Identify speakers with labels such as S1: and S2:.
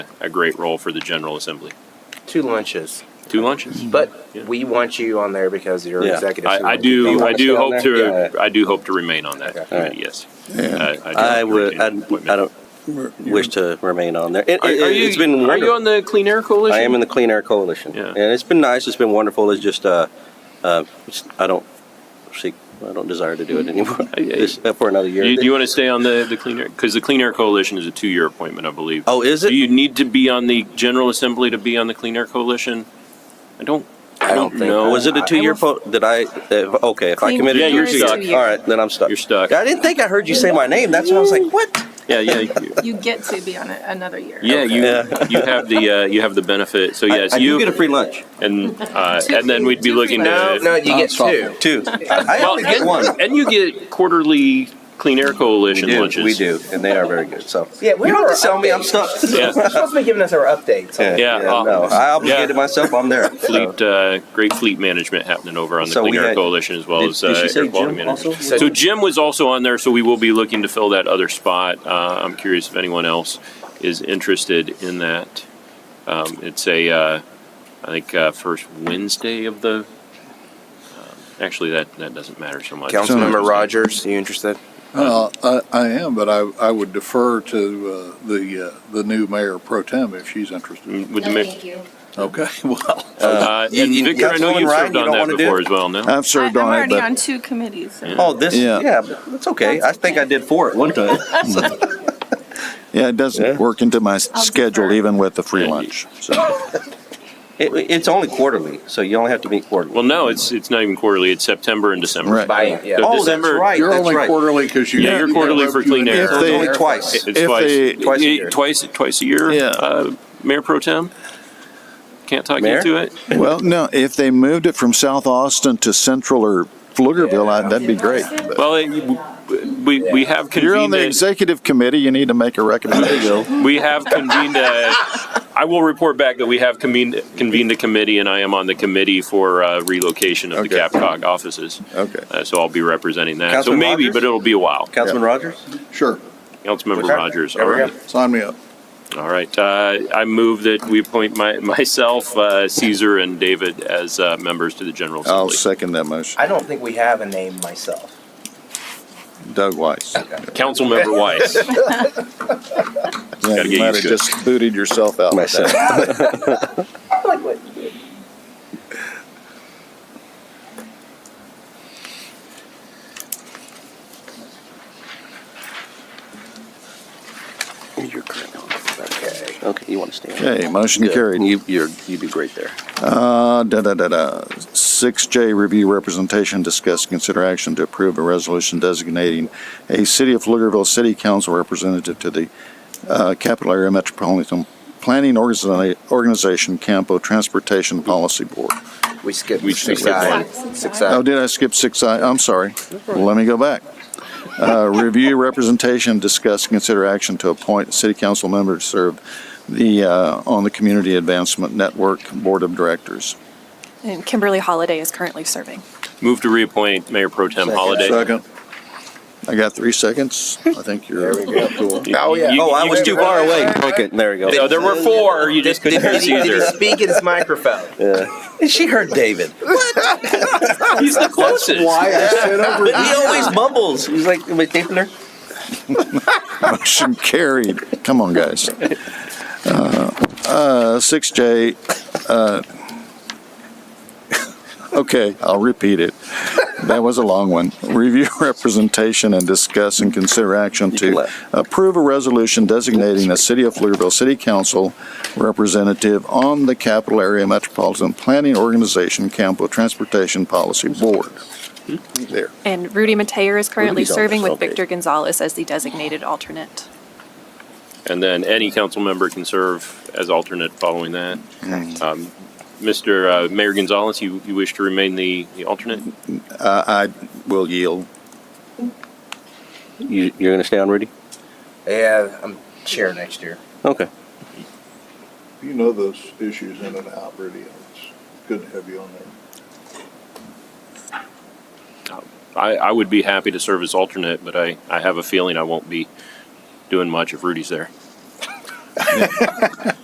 S1: a great role for the General Assembly.
S2: two lunches.
S1: Two lunches.
S2: But
S1: Yeah.
S2: we want you on there because you're
S3: Yeah.
S2: executive.
S1: I, I
S2: supervisor. You
S1: do. I
S2: wanna stay
S1: do
S2: on
S1: hope
S2: there?
S3: Yeah.
S1: to. I do hope to remain on that.
S2: Okay.
S1: committee, Yes. do
S3: I
S1: hope to
S3: would.
S1: retain
S3: I, I
S1: that appointment.
S3: don't wish to remain on there. It,
S1: Are, are you,
S3: has been
S1: are you
S3: wonderful.
S1: on the Clean Air Coalition?
S3: I am in the Clean Air Coalition,
S1: Yeah.
S3: and it's been nice. It's been wonderful. It's just, uh, uh, it's- I don't seek. I don't desire to do it anymore.
S1: Mm-hmm. I- I-
S3: It's up for another year.
S1: Do you, do you want to stay on the, the Clean Air? Because the Clean Air Coalition is a two-year appointment, I believe.
S3: oh, is
S1: Do
S3: it?
S1: you need to be on the General Assembly to be on the Clean Air Coalition? I don't. I don't
S2: think
S1: know.
S3: Was it a
S2: I-
S3: two-year? Po- did I? Uh, okay, if I
S4: Clean
S3: committed,
S1: Yeah,
S3: to
S1: you're
S3: it,
S1: stuck.
S3: All right, then I'm stuck.
S1: You're stuck.
S3: I didn't think I heard you say my name. That's why I was like, what?
S1: Yeah, yeah, you-
S4: You get to be on it another year.
S1: yeah. You
S3: Yeah.
S1: you have the uh, you have the benefit. So yes,
S3: I, I do
S1: you
S3: get a free lunch. Uh,
S1: and uh, and then we'd be
S4: Two
S1: looking
S4: free
S1: to
S2: No, no, you get two.
S3: Two. I, I
S1: Well,
S3: only get
S1: and-
S3: one.
S1: and you get quarterly Clean Air Coalition
S3: we do,
S1: lunches.
S3: We do, and they are very good. So
S2: Yeah, we
S3: you don't
S2: are
S3: have to sell me. I'm stuck.
S1: Yeah.
S2: You're supposed to be giving us our updates.
S3: yeah,
S1: uh,
S3: no, I obligated
S1: yeah.
S3: myself. I'm there. So,
S1: Fleet, uh, great fleet management happening over on the
S3: So
S1: Clean
S3: we
S1: Air
S3: had-
S1: Coalition as well
S3: did-
S1: as
S3: did she
S1: uh,
S3: say
S1: air quality
S3: Jim
S1: management.
S3: also?
S1: So Jim was also on there, so we will be looking to fill that other spot. Uh, I'm curious if anyone else is interested in that. Um, it's a, uh, I think uh, first Wednesday of the. um, Actually, that that doesn't matter so much.
S2: Councilmember Rogers, you interested?
S5: Uh, I, I am, but I, I would defer to uh, the uh, the new mayor pro tem if she's interested.
S1: With the
S6: no,
S1: ma-
S6: thank you.
S5: Okay, well,
S1: uh,
S3: You-
S1: and
S3: you-
S1: Victor, I know
S3: Councilwoman
S1: you've
S3: Ryan,
S1: served
S3: you
S1: on
S3: don't
S1: that
S3: wanna do
S1: before
S3: it?
S1: as well. No,
S7: I've
S4: I-
S7: served
S4: I'm
S7: on it,
S4: already on
S7: but
S4: two committees. so-
S3: oh, this. Yeah.
S5: Yeah.
S3: but it's okay. I think I did four at one time. So,
S5: yeah, it
S3: Yeah.
S5: doesn't work into my s-
S4: I'll
S5: schedule
S4: defer.
S5: even with the free
S1: Yeah, you-
S5: lunch. So
S3: it, it's only quarterly, so you only have to meet quarterly.
S1: well, no, it's it's not even quarterly. It's September and December.
S5: Right.
S2: By, yeah.
S1: So
S3: oh,
S1: December-
S3: that's right.
S5: you're
S3: that's
S5: only
S3: right.
S5: quarterly because you.
S1: Yeah, you're quarterly for clean air.
S5: If
S3: So it's
S5: they-
S3: only twice.
S1: It's
S5: If
S1: twice,
S5: they-
S3: Twice a
S1: eh,
S3: year.
S1: twice, twice a year.
S5: Yeah.
S1: Uh, Mayor Pro Tem can't talk
S3: Mayor?
S1: you into it.
S5: Well, no, if they moved it from South Austin to Central or Pflugerville, I- that'd be great. But
S1: Well, it, we we have
S5: You're on
S1: convened.
S5: the
S1: a-
S5: executive committee, you need to make a recommendation.
S1: we have convened. A, I will report back that we have convened convened a committee, and I am on the committee for uh, relocation of the
S5: Okay.
S1: CAPCOG offices.
S5: Okay.
S1: Uh, so I'll be representing that. so
S3: Councilman
S1: maybe,
S3: Rogers?
S1: but it'll be a while.
S3: Councilman Rogers.
S5: Sure,
S1: Councilmember
S3: Okay.
S1: Rogers.
S3: There
S1: All
S3: we go.
S1: right.
S5: sign me up.
S1: All right, uh, I move that we appoint my, myself, uh, Caesar and David as, uh, members to the General
S5: I'll
S1: Assembly.
S5: second that motion.
S2: I don't think we have a name myself.
S5: Doug Weiss.
S1: Councilmember Weiss.
S5: Yeah,
S1: Gotta get
S5: you
S1: used
S5: might have
S1: to it.
S5: just booted yourself out. with that.
S3: Myself. You're correct.
S2: Okay.
S3: Okay, you want to stay. on.
S5: Okay, motion
S3: Good.
S5: carried.
S3: You, you're, you'd be great there.
S5: Uh, da, da, da, da. Six J, review representation, discuss, consider action to approve a resolution designating a City of Pflugerville City Council representative to the, uh, Capital Area Metropolitan Planning Organiza- Organization Campo Transportation Policy Board.
S2: We skipped
S1: We
S2: six
S1: skipped
S2: I.
S4: one.
S2: Six
S5: Oh,
S2: I.
S5: did I skip six I? I'm sorry. Let me go back. Uh, review representation, discuss, consider action to appoint a city council member to serve the, uh, on the Community Advancement Network Board of Directors.
S8: And Kimberly Holiday is currently serving.
S1: Move to reappoint Mayor Pro Tem Holliday.
S5: Second. I got three seconds. I think you're.
S1: You-
S2: Oh, yeah.
S1: you-
S3: Oh, I
S1: you-
S3: was too far away. Okay, there we
S1: No,
S3: go.
S1: there were four, you just couldn't hear
S2: Did he, did he
S1: Caesar.
S2: speak in his microphone?
S3: She heard David.
S1: He's the closest.
S5: I said over.
S3: But he always mumbles. He's like, am I taping her?
S5: Motion carried. Come on, guys. Uh, Six J, uh, okay, I'll repeat it. That was a long one. Review representation and discuss and consider action
S3: You can
S5: to
S3: laugh.
S5: approve a resolution designating the City of Pflugerville City Council representative on the Capital Area Metropolitan Planning Organization Campo Transportation Policy Board. There.
S8: And Rudy Mateer is currently
S3: Rudy's on
S8: serving
S3: this,
S8: with
S3: okay.
S8: Victor Gonzalez as the designated alternate.
S1: And then any council member can serve as alternate following that. Um, Mr. uh, Mayor Gonzalez, you, you wish to remain the, the alternate?
S5: Uh, I will yield.
S3: You, you're going to stay on, Rudy?
S2: Yeah, I'm chair next year.
S3: Okay.
S5: You know those issues in and out, Rudy. It's good to have you on there.
S1: I, I would be happy to serve as alternate, but I, I have a feeling I won't be doing much if Rudy's there.